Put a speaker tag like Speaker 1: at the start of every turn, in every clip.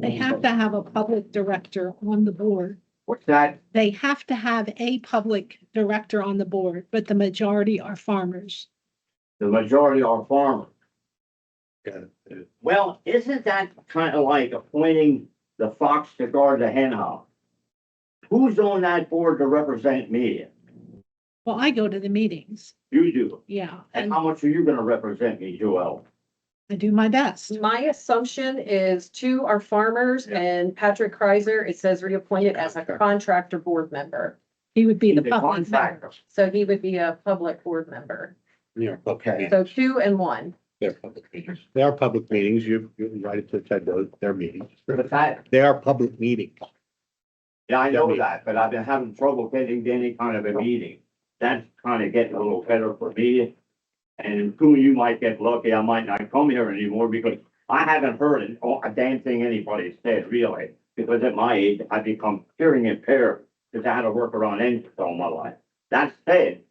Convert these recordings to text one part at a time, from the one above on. Speaker 1: They have to have a public director on the board.
Speaker 2: What's that?
Speaker 1: They have to have a public director on the board, but the majority are farmers.
Speaker 2: The majority are farmers.
Speaker 3: Yeah.
Speaker 2: Well, isn't that kind of like appointing the fox to guard the hen house? Who's on that board to represent me?
Speaker 1: Well, I go to the meetings,
Speaker 2: You do.
Speaker 1: yeah,
Speaker 2: And
Speaker 1: and
Speaker 2: how much are you gonna represent me, Joel?
Speaker 1: I do my best.
Speaker 4: My assumption is two are farmers
Speaker 3: Yeah.
Speaker 4: and Patrick Kreiser, it says reappointed as a
Speaker 3: Contractor.
Speaker 4: contractor board member.
Speaker 1: He would be the
Speaker 2: The
Speaker 1: public.
Speaker 2: contractor.
Speaker 4: So he would be a public board member.
Speaker 3: Yeah,
Speaker 2: Okay.
Speaker 3: okay.
Speaker 4: So two and one.
Speaker 3: They're public meetings. They are public meetings. You, you're invited to attend those, their meetings.
Speaker 2: But that,
Speaker 3: They are public meetings.
Speaker 2: yeah, I know that, but I've been having trouble getting to any kind of a meeting. That's kind of getting a little better for me. And who you might get lucky, I might not come here anymore because I haven't heard an- oh, a damn thing anybody said, really. Because at my age, I become hearing impaired because I had to work around engines all my life. That said,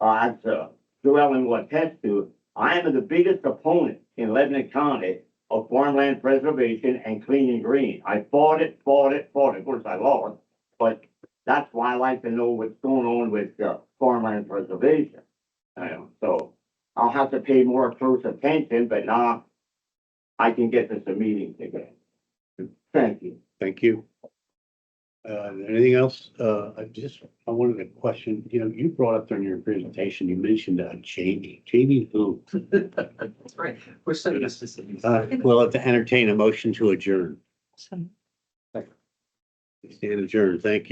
Speaker 2: uh, as uh, Joellen will attest to, I am the biggest opponent in Lebanon County of farmland preservation and clean and green. I fought it, fought it, fought it. Of course, I lost, but that's why I like to know what's going on with uh, farmland preservation. Um, so I'll have to pay more close attention, but now I can get this a meeting again. Thank you.
Speaker 3: Thank you. Uh, anything else? Uh, I just, I wanted to question, you know, you brought up during your presentation, you mentioned uh, Jamie, Jamie who?
Speaker 5: That's right. We're so used to seeing.
Speaker 3: Uh, well, to entertain a motion to adjourn.
Speaker 1: So-
Speaker 3: Stand adjourned. Thank you.